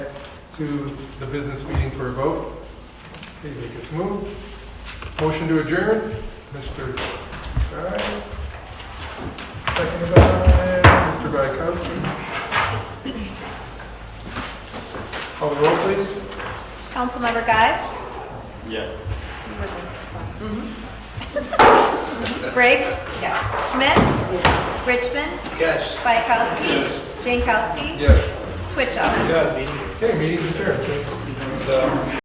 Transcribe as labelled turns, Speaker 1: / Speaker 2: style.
Speaker 1: to the business meeting for a vote. Okay, make its move. Motion to adjourn, Mr. Guy. Second by Mr. Guyakowski. Call the roll, please.
Speaker 2: Councilmember Guy?
Speaker 3: Yeah.
Speaker 2: Briggs? Yes. Schmidt? Richmond? Yes. Bykowski?
Speaker 3: Yes.
Speaker 2: Jankowski?
Speaker 1: Yes.
Speaker 2: Twitchell?
Speaker 1: Yes. Okay, meeting adjourned. And, um,